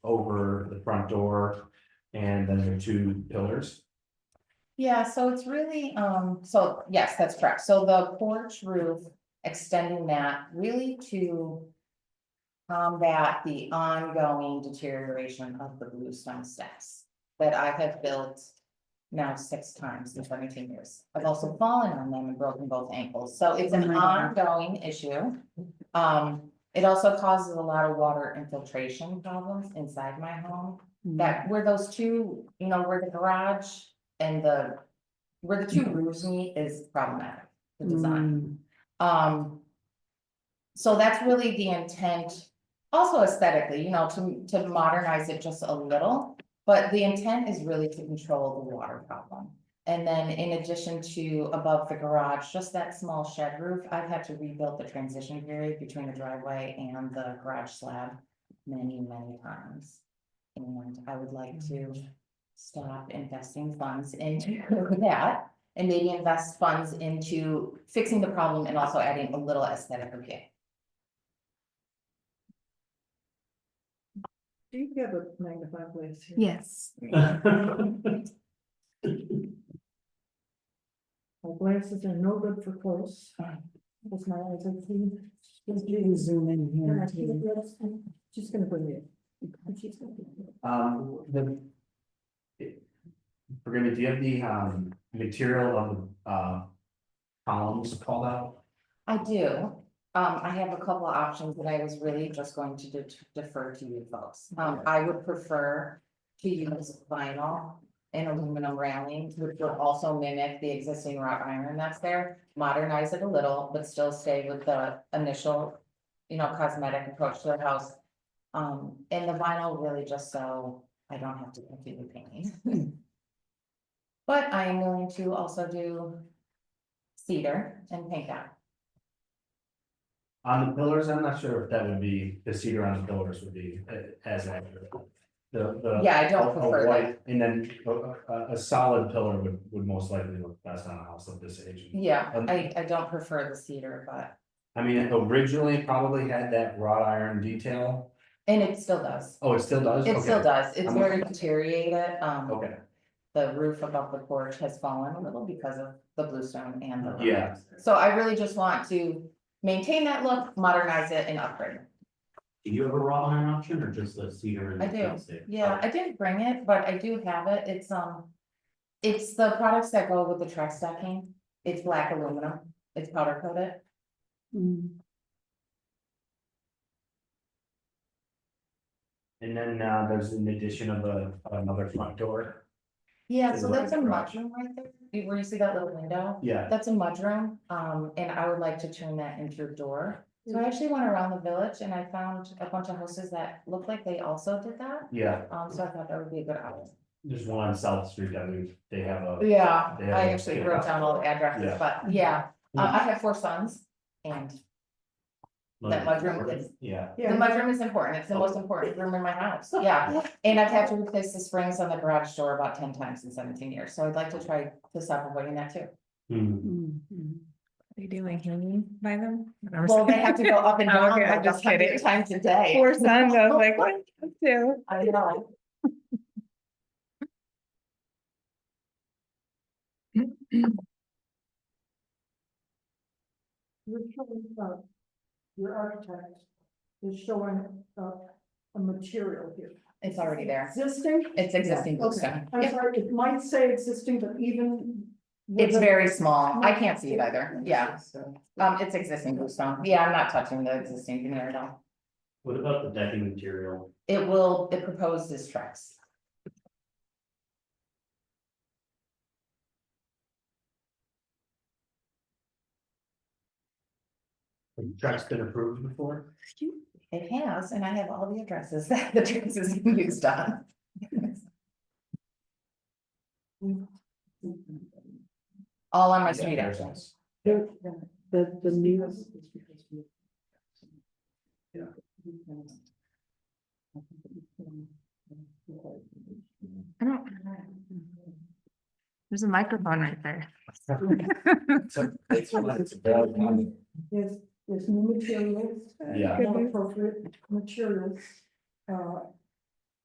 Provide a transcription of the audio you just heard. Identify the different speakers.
Speaker 1: over the front door. And then there are two pillars.
Speaker 2: Yeah, so it's really, um, so, yes, that's correct, so the porch roof, extending that really to. Combat the ongoing deterioration of the bluestone steps that I have built. Now six times in seventeen years, I've also fallen on them and broken both ankles, so it's
Speaker 3: Oh
Speaker 2: an
Speaker 3: my God.
Speaker 2: ongoing issue. Um, it also causes a lot of water infiltration problems inside my home. That where those two, you know, where the garage and the. Where the two roofs meet is problematic, the design,
Speaker 3: Mm,
Speaker 2: um. So that's really the intent, also aesthetically, you know, to to modernize it just a little. But the intent is really to control the water problem. And then in addition to above the garage, just that small shed roof, I've had to rebuild the transition period between the driveway and the garage slab many, many times. And I would like to stop investing funds into that and maybe invest funds into fixing the problem and also adding a little aesthetic appeal.
Speaker 4: Do you have a magnifying glass here?
Speaker 3: Yes,
Speaker 1: Um,
Speaker 4: My glasses are no good for close. Because my eyes are clean. Just
Speaker 3: you can zoom in
Speaker 4: And
Speaker 3: here.
Speaker 4: I keep
Speaker 3: too.
Speaker 4: it close, and She's gonna bring it. And she's gonna bring it.
Speaker 1: Um, the. We're gonna, do you have the, um, material of, uh. Columns called out?
Speaker 2: I do. Um, I have a couple of options that I was really just going to de- defer to you folks. Um, I would prefer to use vinyl and aluminum railing, which would also mimic the existing wrought iron that's there. Modernize it a little, but still stay with the initial, you know, cosmetic approach to the house. Um, and the vinyl really just so I don't have to continue painting. But I am willing to also do cedar and pink out.
Speaker 1: On the pillars, I'm not sure if that would be, the cedar on the pillars would be uh, as accurate. The, the.
Speaker 2: Yeah, I don't
Speaker 1: a- a
Speaker 2: prefer that.
Speaker 1: white And then a, a, a solid pillar would, would most likely look best on a house of this age.
Speaker 2: Yeah,
Speaker 1: Um,
Speaker 2: I, I don't prefer the cedar, but,
Speaker 1: I mean, it originally probably had that wrought iron detail.
Speaker 2: and it still does.
Speaker 1: Oh, it still does?
Speaker 2: It still
Speaker 1: Okay.
Speaker 2: does. It's
Speaker 1: I'm-
Speaker 2: where to deteriorate it. Um,
Speaker 1: Okay,
Speaker 2: the roof above the porch has fallen a little because of the bluestone and the.
Speaker 1: Yeah.
Speaker 2: So I really just want to maintain that look, modernize it and upgrade it.
Speaker 5: Do you have a raw iron option or just the cedar and?
Speaker 2: I
Speaker 5: the
Speaker 2: do,
Speaker 5: plastic?
Speaker 2: Yeah, I didn't bring it, but I do have it. It's, um, it's the products that go with the truck stacking. It's black aluminum. It's powder coated.
Speaker 3: Mm,
Speaker 1: and then, uh, there's an addition of a, of another front door.
Speaker 2: Yeah,
Speaker 1: Is
Speaker 2: so
Speaker 1: it
Speaker 2: that's a
Speaker 1: like a
Speaker 2: mudroom right there. You- Where you see that little window?
Speaker 1: Yeah,
Speaker 2: That's a mudroom, um, and I would like to turn that into a door. So I actually went around the village and I found a bunch of houses that looked like they also did that,
Speaker 1: yeah,
Speaker 2: um, so I thought that would be a good option.
Speaker 1: there's one on South Street that we, they have a,
Speaker 2: Yeah,
Speaker 1: They have
Speaker 2: I
Speaker 1: a-
Speaker 2: actually wrote down all the addresses,
Speaker 1: Yeah.
Speaker 2: but yeah, uh, I have four sons and that mudroom is,
Speaker 1: yeah.
Speaker 2: the
Speaker 4: Yeah,
Speaker 2: mudroom is important. It's the most important room in my house, yeah. And I've had to replace the springs on the garage door about ten times in seventeen years, so I'd like to try to stop avoiding that too.
Speaker 1: Hmm.
Speaker 3: mm, mm.
Speaker 6: They do like hanging by them.
Speaker 2: Well, they have to go up and
Speaker 6: Oh,
Speaker 2: down
Speaker 6: okay, I'm
Speaker 2: like a
Speaker 6: just kidding.
Speaker 2: hundred times a day.
Speaker 6: Four sons, I was like, what? Two.
Speaker 2: I know.
Speaker 4: you're showing, uh, your architect is showing, uh, a material here.
Speaker 2: It's already there.
Speaker 4: Existing?
Speaker 2: It's existing
Speaker 4: Okay.
Speaker 2: bluestone.
Speaker 4: I'm
Speaker 2: Yeah.
Speaker 4: sorry, it might say existing, but even. with
Speaker 2: It's
Speaker 4: a-
Speaker 2: very small. I can't see it either. Yeah. Um, it's existing bluestone. Yeah, I'm not touching the existing veneer at all.
Speaker 5: What about the decking material?
Speaker 2: It will, it proposes tracks.
Speaker 1: Truck's been approved before?
Speaker 2: It has, and I have all the addresses that the tracks is used on. All on my street address.
Speaker 3: There- The, the new,
Speaker 6: I don't. There's a microphone right there.
Speaker 1: So it's like it's about one-
Speaker 4: There's, there's new materials.
Speaker 1: Yeah.
Speaker 4: More appropriate materials, uh,